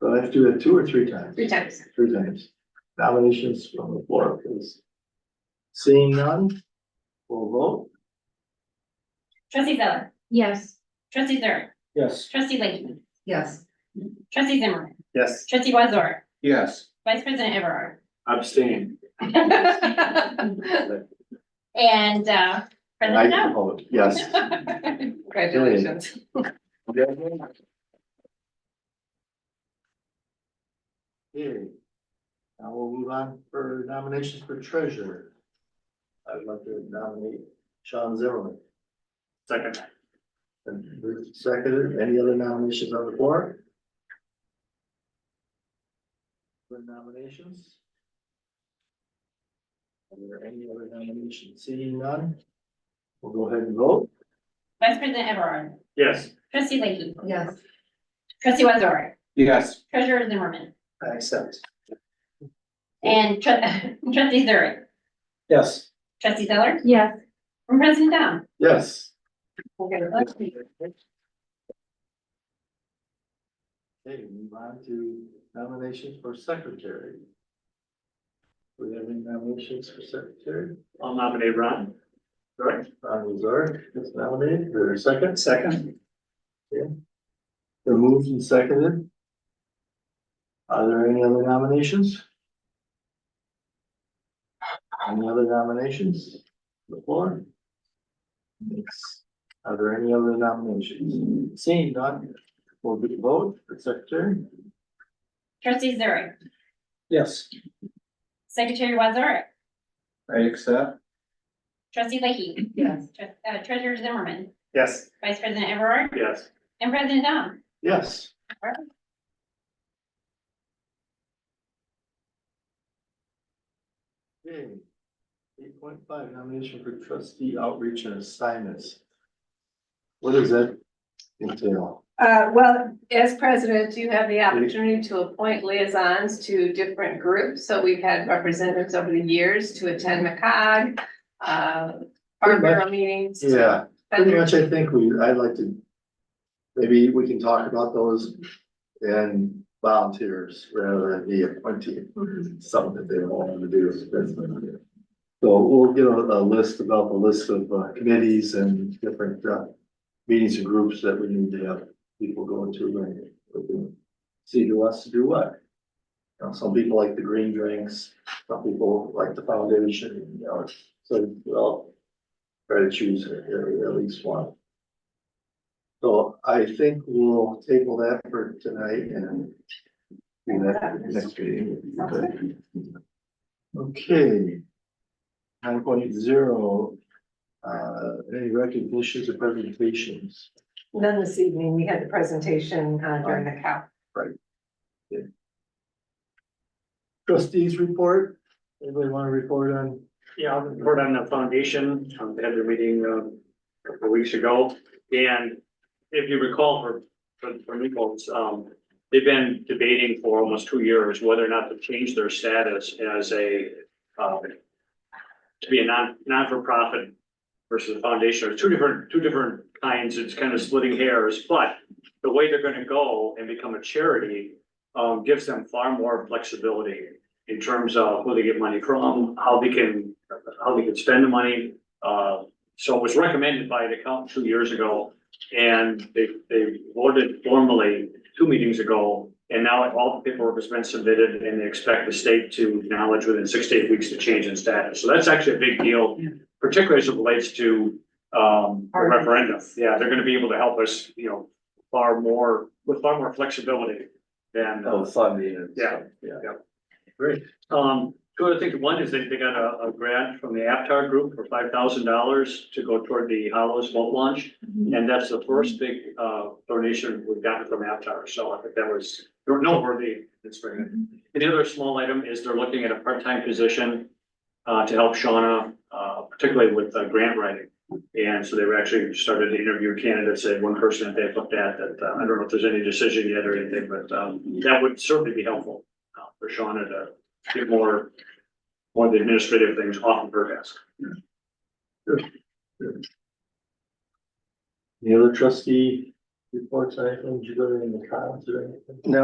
So I have to do that two or three times? three times. Three times. Nominations from the floor, please. Seeing none, we'll vote. Trustee Zeller, Yes. trustee Zurich, Yes. trustee Linkman, Yes. trustee Zimmerman, Yes. trustee Wazor, Yes. vice president Everard. Abstain. Um, And, uh, And I president now. vote, yes. Congratulations. Okay. Now we'll move on for nominations for treasurer. I'd like to nominate Sean Zimmerman. Second. And moved and seconded, any other nominations on the floor? For nominations? Are there any other nominations? Seeing none? We'll go ahead and vote. Vice president Everard, Yes. trustee Linkman, Yes. trustee Wazor, Yes. treasurer Zimmerman, I accept. and tru- trustee Zurich, Yes. trustee Zeller, Yes. and president Down. Yes. Congratulations. Okay, move on to nominations for secretary. Do we have any nominations for secretary? I'll nominate Ron. Sorry. Ron Luzar is nominated, there a second? Second. Okay. They're moved and seconded. Are there any other nominations? Any other nominations before? Are there any other nominations? Seeing none, will we vote for secretary? Trustee Zurich, Yes. secretary Wazor, I accept. trustee Lakey, Yes. tre- uh, treasurer Zimmerman, Yes. vice president Everard, Yes. and president Down. Yes. Alright. Okay. Eight point five, nomination for trustee outreach and assignments. What does that entail? Uh, well, as president, you have the opportunity to appoint liaisons to different groups. So we've had representatives over the years to attend McCog, uh, our bureau meetings. Yeah, But pretty much, I think we, I'd like to, maybe we can talk about those and volunteers rather than the appointee. Mhm. something that they don't want to do. is that's what I'm doing. So we'll get a, a list about the list of uh, committees and different, uh, meetings and groups that we need to have people go into and we can see who wants to do what. You know, some people like the green drinks, some people like the foundation, you know, so we'll try to choose at, at least one. So I think we'll table that for tonight and do that next meeting. Okay. Nine point zero, uh, any recognitions or presentations? And Then this evening, we had the presentation uh, during the COW. Trustees report, anybody want to report on? Yeah, I'll report on the foundation. Um, they had their meeting, um, a couple of weeks ago. And if you recall for, for, for new folks, um, they've been debating for almost two years whether or not to change their status as a, um, to be a non, non-for-profit versus a foundation. There's two different, two different kinds. It's kind of splitting hairs, but the way they're gonna go and become a charity, um, gives them far more flexibility in terms of who they get money from, how they can, how they can spend the money. Uh, so it was recommended by the council two years ago, and they, they voted formally two meetings ago. And now all the paperwork has been submitted, and they expect the state to acknowledge within six to eight weeks the change in status. So that's actually a big deal, particularly as it relates to, um, the referendum. Yeah, they're gonna be able to help us, you know, far more, with far more flexibility than. uh, funding. Yeah. Yeah. Great. Um, two other things. One is they, they got a, a grant from the Aptar Group for five thousand dollars to go toward the Hollows boat launch. Mm-hmm. And that's the first big, uh, donation we've gotten from Aptar. So I think that was, there were noteworthy this spring. And the other small item is they're looking at a part-time position, uh, to help Shauna, uh, particularly with, uh, grant writing. And so they were actually started to interview candidates, and one person that they've looked at that, uh, I don't know if there's any decision yet or anything, but, um, that would certainly be helpful uh, for Shauna to get more, more of the administrative things off of her desk. The other trustee reports, anything, did you go to any of the comments or anything? No,